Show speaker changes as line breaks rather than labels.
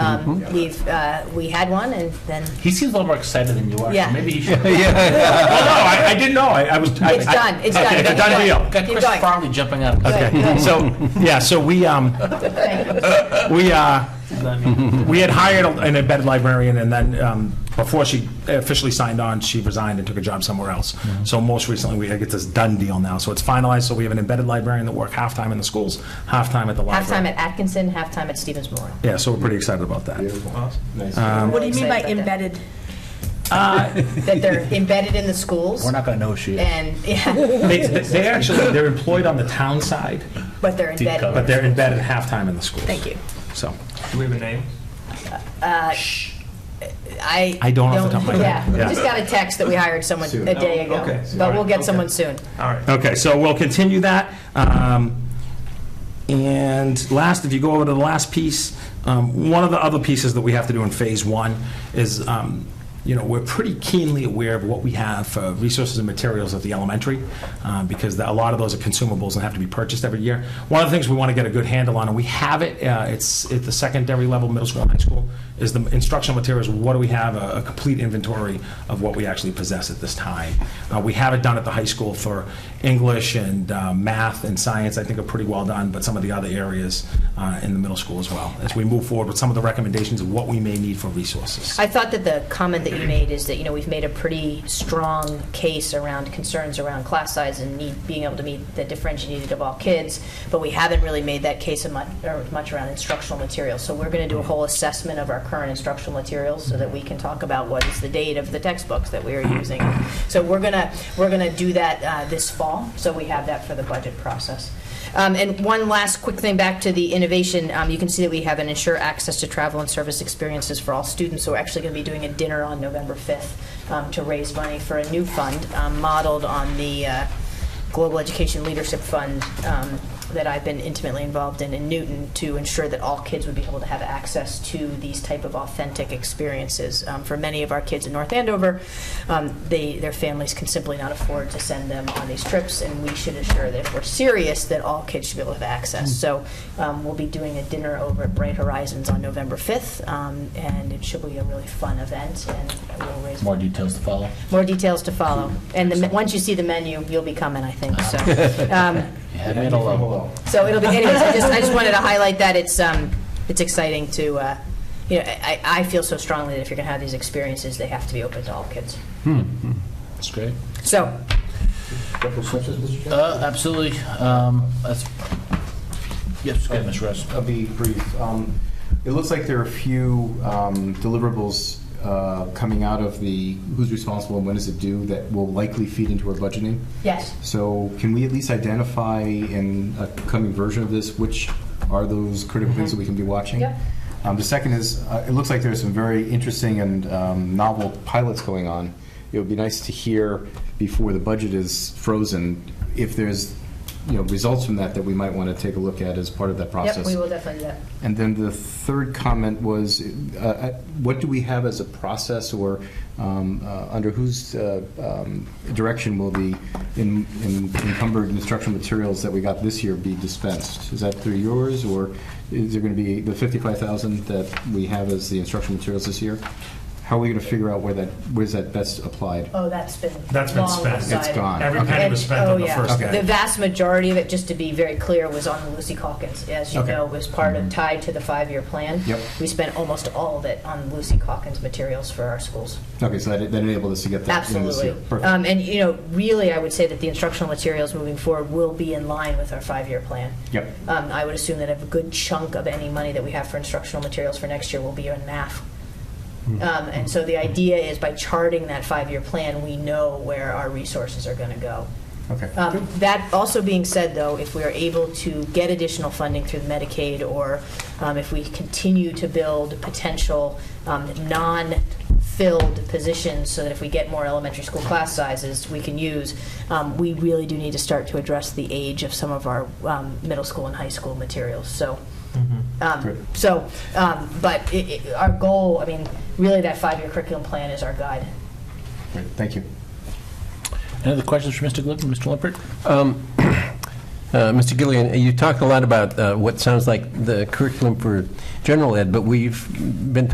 Um,
Mm-hmm.
We've, uh, we had one, and then
He seems a little more excited than you are. so
Yeah.
Maybe he should.
Yeah,
No,
yeah.
no, I, I didn't know. I, I was. I-
it's
I-
done, it's done.
Okay, it's a
Keep
done
going.
deal.
Got
Keep
Chris
going.
Farley jumping up.
Okay, so, yeah, so we, um,
Thank you.
we, uh, we had hired an embedded librarian, and then um, before she officially signed on, she resigned and took a job somewhere else. So most recently, we get this done deal now, so it's finalized, so we have an embedded librarian that work half-time in the schools, half-time at the
Halftime
library.
at Atkinson, halftime at Stevens Memorial.
Yeah, so we're pretty excited about that.
I'm
Uh,
What do you mean
really
by
excited about
embedded?
That That they're embedded in the schools,
We're not going to know she is.
and, yeah,
They, they- they actually, they're employed on the town side,
but they're
Deep
embedded.
cover.
but they're embedded half-time in the schools.
Thank you.
So,
Do we have a name?
I.
I don't off the top of my head.
Yeah, we
Yeah.
just got a text that we hired someone a day
Oh, okay.
ago, but we'll get someone soon.
All right.
okay, so we'll continue that. Um, And last, if you go over to the last piece, um, one of the other pieces that we have to do in phase one is, um, you know, we're pretty keenly aware of what we have for resources and materials at the elementary, um, because a lot of those are consumables and have to be purchased every year. One of the things we want to get a good handle on, and we have it, uh, it's at the secondary level, middle school, and high school, is the instructional materials, what do we have, a a complete inventory of what we actually possess at this time. Uh, We have it done at the high school for English and uh, math and science, I think are pretty well done, but some of the other areas uh, in the middle school as well, as we move forward with some of the recommendations of what we may need for resources.
I thought that the comment that you made is that, you know, we've made a pretty strong case around concerns around class size and need, being able to meet the differentiated need of all kids, but we haven't really made that case much, or much around instructional materials. So we're going to do a whole assessment of our current instructional materials so that we can talk about what is the date of the textbooks that we are using. So we're going to, we're going to do that uh, this fall, so we have that for the budget process. Um, And one last quick thing back to the innovation, Um, you can see that we have an ensure access to travel and service experiences for all students, so we're actually going to be doing a dinner on November 5th um, to raise money for a new fund um, modeled on the uh, Global Education Leadership Fund um, that I've been intimately involved in in Newton to ensure that all kids would be able to have access to these type of authentic experiences. Um, For many of our kids in North Andover, um, they, their families can simply not afford to send them on these trips, and we should ensure that if we're serious, that all kids should be able to have access. So um, we'll be doing a dinner over at Bright Horizons on November 5th, um, and it should be a really fun event, and we'll raise
More details to follow.
more details to follow. And the, me- once you see the menu, you'll be coming, I think, so. um,
You had me at a low.
So it'll be, anyways, I just, I just wanted to highlight that it's, um, it's exciting to, uh, you know, I, I feel so strongly that if you're gonna have these experiences, they have to be open to all kids.
That's great.
So,
Uh, absolutely. Um, that's, yes, go ahead, Mr. Russ.
I'll be brief. Um, It looks like there are a few um, deliverables uh, coming out of the, who's responsible and when is it due, that will likely feed into our budgeting.
yes,
So can we at least identify in a coming version of this, which are those critical things that we can be watching?
Mm-hmm. Yep.
Um, The second is, uh, it looks like there's some very interesting and um, novel pilots going on. It would be nice to hear before the budget is frozen, if there's, you know, results from that that we might want to take a look at as part of that process.
yep, we will definitely do that.
And then the third comment was, uh, uh, what do we have as a process, or um, uh, under whose uh, um, direction will the en- en- encumbered instructional materials that we got this year be dispensed? Is that through yours, or is there going to be the 55,000 that we have as the instructional materials this year? How are we going to figure out where that, where's that best applied?
Oh, that's been
That's been
long
spent. It's
decided.
gone.
Every
Okay.
penny was
And-
spent
oh,
on the
yeah.
first
Okay.
day.
The vast majority of it, just to be very clear, was on Lucy Calkins. As you
Okay.
know, was part of, tied to the five-year plan.
Mm-hmm. Yep.
We spent almost all of it on Lucy Calkins materials for our schools.
Okay, so that that enabled us to get that in this
Absolutely.
year. Perfect.
Um, And, you know, really, I would say that the instructional materials moving forward will be in line with our five-year plan.
Yep.
Um, I would assume that a good chunk of any money that we have for instructional materials for next year will be in math.
Mm-hmm.
Um, And so the idea is by charting that five-year plan, we know where our resources are going to go.
Okay.
Um, That also being said, though, if we are able to get additional funding through Medicaid, or um, if we continue to build potential um, non-filled positions, so that if we get more elementary school class sizes, we can use, um, we really do need to start to address the age of some of our um, middle school and high school materials. So, um,
Good.
so, um, but i- i- our goal, I mean, really, that five-year curriculum plan is our guide.
Great, Thank you.
Any other questions for Mr. Glickman, Mr. Lippert?
Uh, Mr. Gillian, you talked a lot about uh, what sounds like the curriculum for general ed, but we've been